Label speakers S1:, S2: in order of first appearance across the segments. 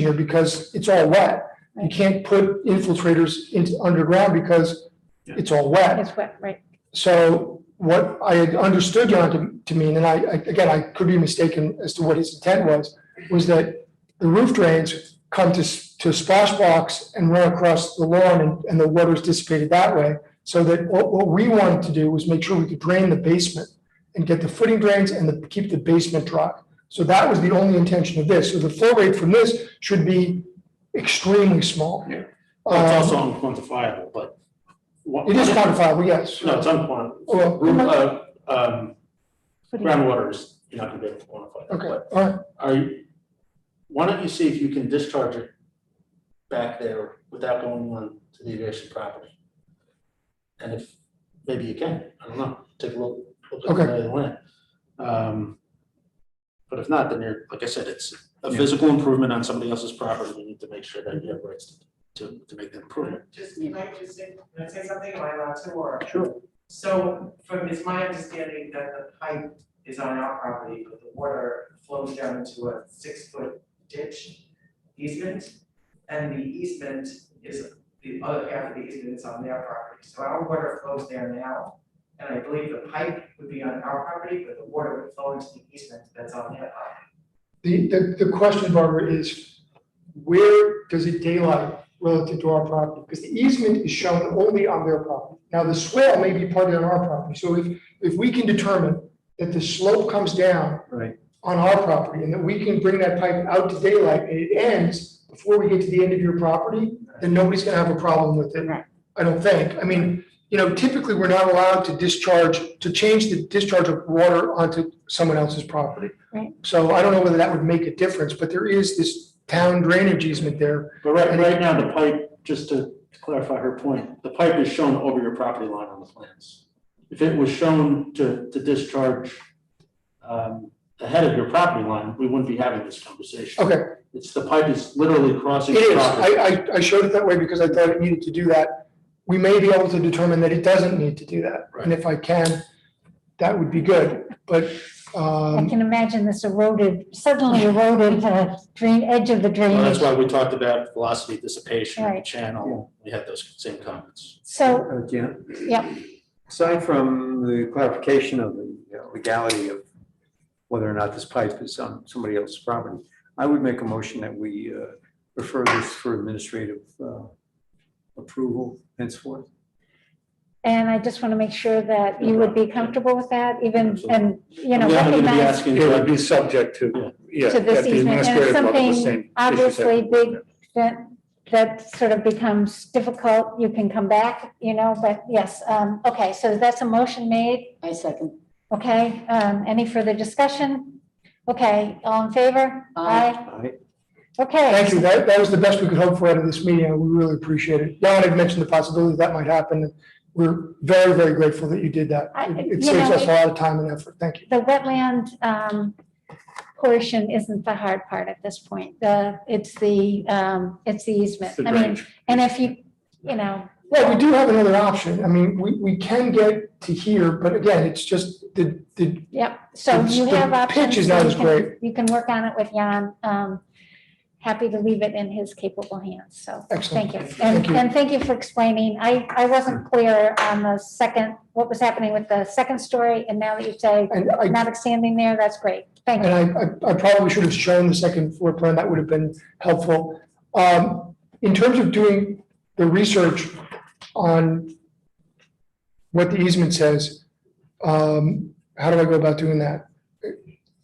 S1: here because it's all wet. You can't put infiltrators into underground because it's all wet.
S2: It's wet, right?
S1: So what I had understood Jan to, to mean, and I, I- again, I could be mistaken as to what his intent was, was that the roof drains come to, s- to a splash box and run across the lawn and, and the water's dissipated that way. So that what, what we wanted to do was make sure we could drain the basement and get the footing drains and the, keep the basement dry. So that was the only intention of this. So the flow rate from this should be extremely small.
S3: Yeah. Well,
S1: Um,
S3: it's also unquantifiable, but. what-
S1: It is quantifiable, yes.
S3: No, it's unquantifiable.
S1: Well,
S2: What
S3: Um,
S2: do you-
S3: groundwater is, you're not gonna be able to quantify. that,
S1: okay,
S3: but
S1: all right.
S3: Are you, why don't you see if you can discharge it back there without going on to the adjacent property? And if, maybe you can, I don't know, take a look, look at the
S1: Okay.
S3: lay of the land. Um, But if not, then you're, like I said, it's a physical improvement on somebody else's property, we need to make sure that you have rights to, to make that improvement.
S4: Just, can I just say, can I say something, am I allowed to, or?
S3: Sure.
S4: So from, it's my understanding that the pipe is on our property, but the water flows down into a six-foot ditch easement. And the easement is, the other half of the easement is on their property, so our water flows there now. And I believe the pipe would be on our property, but the water would flow into the easement that's on their property.
S1: The, the, the question, Barbara, is where does it daylight relative to our property? Because the easement is shown only on their property. Now, the swale may be part of our property, so if, if we can determine that the slope comes down
S3: Right.
S1: on our property and that we can bring that pipe out to daylight and it ends before we get to the end of your property, then nobody's gonna have a problem with it.
S2: Right.
S1: I don't think. I mean, you know, typically, we're not allowed to discharge, to change the discharge of water onto someone else's property. So I don't know whether that would make a difference, but there is this town drainage easement there.
S3: But right, right now, the pipe, just to clarify her point, the pipe is shown over your property line on the plans. If it was shown to, to discharge um, ahead of your property line, we wouldn't be having this conversation.
S1: Okay,
S3: It's, the pipe is literally
S1: it
S3: crossing.
S1: is.
S3: your property.
S1: I, I, I showed it that way because I thought it needed to do that. We may be able to determine that it doesn't need to do that. And if I can, that would be good, but,
S2: I
S1: um,
S2: can imagine this eroded, suddenly eroded uh, drain, edge of the
S5: Oh,
S3: Well,
S2: drainage.
S3: that's why we talked about velocity dissipation,
S2: Right.
S3: channel, we had those same comments.
S2: So,
S6: Uh, Janet?
S2: Yep.
S6: Aside from the clarification of the you know, legality of whether or not this pipe is on somebody else's property, I would make a motion that we uh, refer this for administrative uh, approval henceforth.
S2: and I just want to make sure that you would be comfortable with that, even, and, you know,
S3: We're not gonna be
S2: recognize,
S3: asking
S5: It would
S3: about
S5: be subject to, yeah.
S2: To this
S5: at the
S2: easement, and
S5: administrative level, the
S2: something
S5: same issues
S2: obviously
S5: that-
S2: big, that, that sort of becomes difficult, you can come back, you know, but yes, um, okay, so that's a motion made,
S7: I second.
S2: okay? Um, any further discussion? Okay, all in favor?
S7: Aye.
S6: Aye.
S2: Okay.
S1: thank you. That, that was the best we could hope for out of this meeting. and We really appreciate it. Jan had mentioned the possibility that might happen. We're very, very grateful that you did that.
S2: I-
S1: It-
S2: you
S1: It saves
S2: know,
S1: us a lot of time and effort. Thank you.
S2: the wetland um, portion isn't the hard part at this point. The, it's the, um, it's the easement.
S5: the
S2: I mean,
S5: drainage.
S2: and if you, you know,
S1: Well, we do have another option. I mean, we, we can get to here, but again, it's just the, the
S2: yep, so
S1: It's-
S2: you
S1: the
S2: have options.
S1: pitch is
S2: so
S1: not
S2: you
S1: as
S2: can-
S1: great.
S2: You can work on it with Jan. Um, Happy to leave it in his capable hands, so
S1: Excellent.
S2: thank you.
S1: Thank
S2: And,
S1: you.
S2: and thank you for explaining. I, I wasn't clear on the second, what was happening with the second story, and now that you say
S1: And I,
S2: not extending there, that's great. Thank
S1: and
S2: you.
S1: I, I- I probably should have shown the second floor plan, that would have been helpful. Um, in terms of doing the research on what the easement says, um, how do I go about doing that?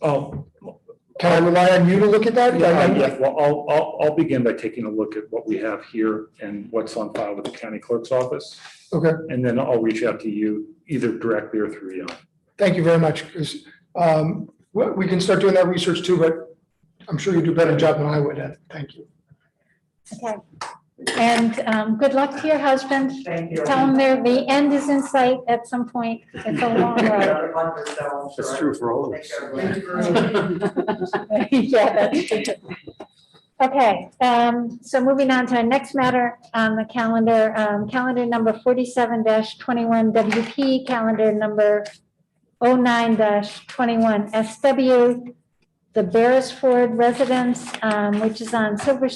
S5: Oh,
S1: Can I rely on you to look at that?
S5: yeah, I- yeah, well, I'll, I'll, I'll begin by taking a look at what we have here and what's on file with the county clerk's office.
S1: Okay.
S5: And then I'll reach out to you either directly or through you.
S1: Thank you very much, 'cause, um, we, we can start doing that research too, but I'm sure you do a better job than I would at. it. Thank you.
S2: Okay. And um, good luck to your husband.
S4: Thank you.
S2: Tell them there, the end is in sight at some point. It's a long road.
S4: Another month or so, I'm sure.
S6: That's true for all of
S4: Thank
S6: us.
S4: you, everyone.
S2: Yeah, that's true. Okay, um, so moving on to our next matter on the calendar, um, calendar number forty-seven twenty-one oh WP, calendar number 9 twenty-one SW. the Beresford residence, um, which is on Silver